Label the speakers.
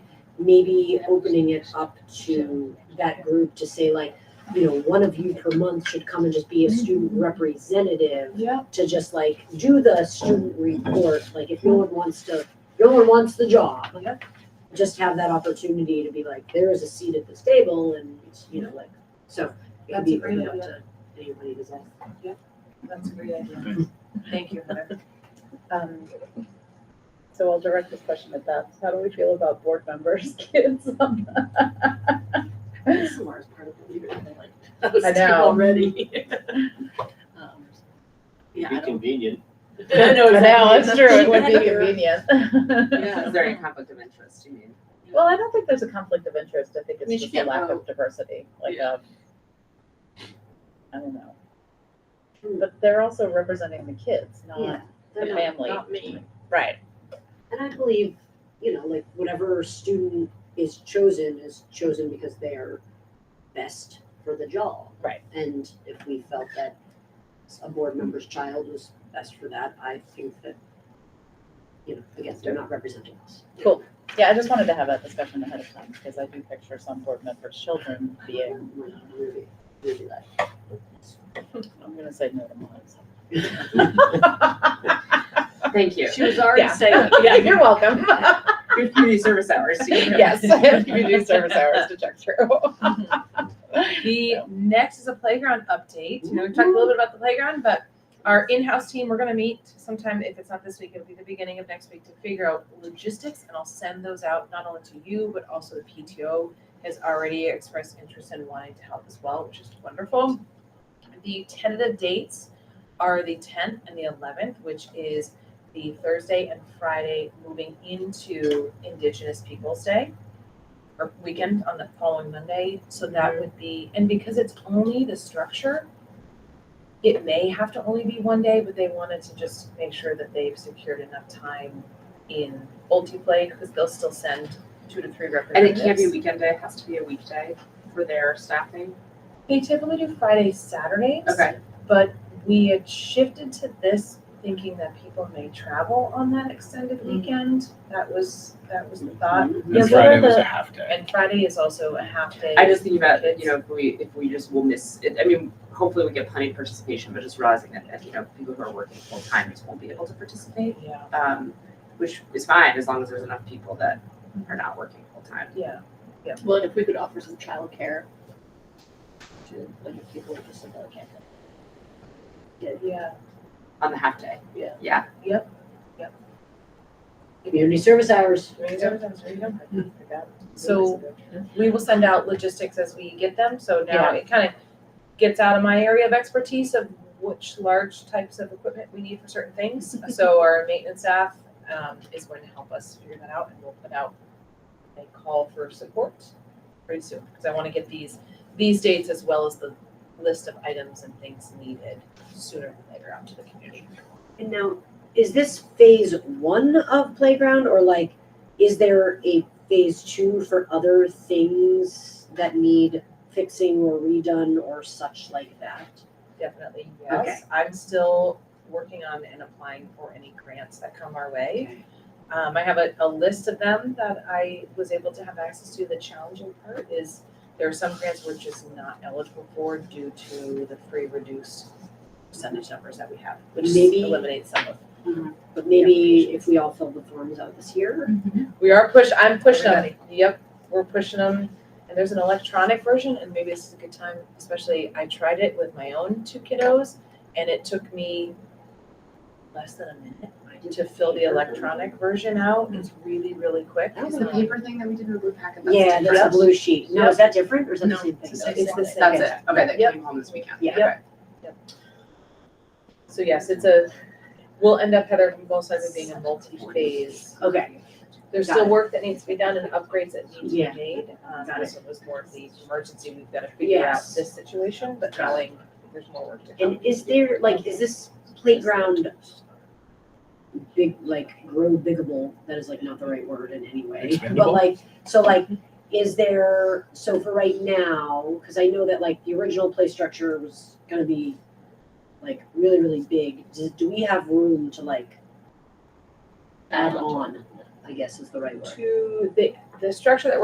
Speaker 1: maybe opening it up to that group to say like, you know, one of you per month should come and just be a
Speaker 2: Mm-hmm.
Speaker 1: student representative
Speaker 3: Yeah.
Speaker 1: to just like do the student report, like if no one wants to, no one wants the job.
Speaker 3: Yep.
Speaker 1: Just have that opportunity to be like, there is a seat at this table and, you know, like, so it could
Speaker 3: That's
Speaker 1: be
Speaker 3: a great
Speaker 1: opened up to
Speaker 3: idea.
Speaker 1: anybody that's.
Speaker 3: That's a great idea.
Speaker 4: Okay.
Speaker 3: Thank you, Heather.
Speaker 2: Um, So I'll direct this question at that. How do we feel about board members, kids?
Speaker 3: ASMR is part of the leader thing, like, that
Speaker 2: I
Speaker 3: was
Speaker 2: know.
Speaker 3: already. Um, Yeah, I
Speaker 4: Be
Speaker 3: don't.
Speaker 4: convenient.
Speaker 3: I know
Speaker 2: Now,
Speaker 3: exactly.
Speaker 2: it's true, it would be
Speaker 3: That's-
Speaker 2: convenient.
Speaker 3: Yeah.
Speaker 5: Is there any conflict of interest, you mean?
Speaker 2: Well, I don't think there's a conflict of interest. I think
Speaker 3: I mean,
Speaker 2: it's
Speaker 3: she
Speaker 2: just a
Speaker 3: can't
Speaker 2: lack of
Speaker 3: vote.
Speaker 2: diversity, like,
Speaker 3: Yeah.
Speaker 2: um, I don't know. But they're also representing the kids,
Speaker 1: Yeah.
Speaker 2: not,
Speaker 1: They're
Speaker 2: The
Speaker 1: not-
Speaker 2: family.
Speaker 3: Not me.
Speaker 2: right,
Speaker 1: And I believe, you know, like whatever student is chosen is chosen because they are best for the job.
Speaker 2: Right.
Speaker 1: And if we felt that a board member's child was best for that, I think that, you know, again, they're not representing us.
Speaker 2: cool. Yeah, I just wanted to have that discussion ahead of time, because I do picture some board members' children being,
Speaker 1: We're not really, really like.
Speaker 2: I'm gonna say no to mine.
Speaker 5: Thank you.
Speaker 3: She was already
Speaker 2: Yeah.
Speaker 3: saying,
Speaker 2: Yeah,
Speaker 3: yeah,
Speaker 2: you're welcome.
Speaker 5: Your community service hours. to get her.
Speaker 2: Yes, I have community service hours to check through.
Speaker 6: The next is a playground update. You know, we talked a little bit about the playground, but our in-house team, we're gonna meet sometime, if it's not this week, it'll be the beginning of next week to figure out logistics and I'll send those out not only to you, but also the PTO has already expressed interest in wanting to help as well, which is wonderful. The tentative dates are the tenth and the eleventh, which is the Thursday and Friday moving into Indigenous Peoples' Day or weekend on the following Monday, so that
Speaker 5: Mm-hmm.
Speaker 6: would be, and because it's only the structure, it may have to only be one day, but they wanted to just make sure that they've secured enough time in play because they'll still send two to three
Speaker 5: And it
Speaker 6: representatives.
Speaker 5: can't be a weekend day, it has to be a weekday for their staffing.
Speaker 6: They typically do Fridays, Saturdays.
Speaker 5: Okay.
Speaker 6: But we had shifted to this thinking that people may travel on that
Speaker 5: Mm.
Speaker 6: extended weekend. That was, that was the thought.
Speaker 4: This
Speaker 6: Yeah, what are
Speaker 4: Friday was
Speaker 6: the-
Speaker 4: a half day.
Speaker 6: And Friday is also a half day.
Speaker 5: Mm-hmm. I just think about, you know, if we, if we just will miss, it. I mean, hopefully we get plenty of participation, but just realizing that, that, you know, people who are working full time just won't be able to participate.
Speaker 6: Yeah,
Speaker 5: Um, which is fine, as long as there's enough people that are not working full time.
Speaker 6: yeah.
Speaker 3: well, and if we could offer some childcare to, like, people with disabilities.
Speaker 6: Yeah.
Speaker 5: On the half day.
Speaker 3: Yeah.
Speaker 5: Yeah,
Speaker 1: Community service hours.
Speaker 6: So we will send out logistics as we get them, so now it kind of gets out of my area of expertise of which large types of equipment we need for certain things. So our maintenance staff um is going to help us figure that out and we'll put out a call for support pretty soon, because I want to get these, these dates as well as the list of items and things needed sooner than later out to the community.
Speaker 1: And now, is this phase one of playground or like, is there a phase two for other things that need fixing or redone or such like that?
Speaker 6: Definitely, yes. I'm still working on and applying for any grants that come our way. Um, I have a, a list of them that I was able to have access to. The challenging part is there are some grants we're just not eligible for due to the free reduced percentage numbers that we have, which
Speaker 1: Maybe-
Speaker 6: eliminates some of.
Speaker 1: But maybe if we all fill the forms out this year,
Speaker 5: Mm-hmm.
Speaker 6: We are push, I'm pushing them. Yep, we're pushing them. And there's an electronic version and maybe this is a good time, especially I tried it with my own two kiddos and it took me less than a minute to fill the electronic version out. It's really, really quick.
Speaker 5: That was the paper thing that we did in the blue packet. that's
Speaker 1: yeah, that's a
Speaker 5: different.
Speaker 1: blue sheet. No, is that different or is that the
Speaker 5: No,
Speaker 1: same
Speaker 5: it's
Speaker 1: thing?
Speaker 6: It's the same.
Speaker 5: That's it, okay, that
Speaker 6: Yep.
Speaker 5: came home this weekend.
Speaker 1: Yeah.
Speaker 5: Okay.
Speaker 6: So yes, it's a, we'll end up Heather most likely being a multi-phase.
Speaker 1: Okay,
Speaker 6: There's
Speaker 1: Got
Speaker 6: still
Speaker 1: it.
Speaker 6: work that needs to be done and upgrades that need to be
Speaker 1: Yeah.
Speaker 6: made. Um,
Speaker 1: Got
Speaker 6: this one was more of the emergency, we've gotta figure out
Speaker 1: Yes.
Speaker 6: this situation, but
Speaker 1: Got
Speaker 6: knowing there's more work to come.
Speaker 1: and is there, like, is this playground big, like, grow biggable? That is like not the right word in any way. But
Speaker 4: Expandable?
Speaker 1: like, so like, is there, so for right now, because I know that like the original play structure was gonna be like really, really big. Do, do we have room to like add on, I guess is the right word?
Speaker 6: to, they, the structure that we're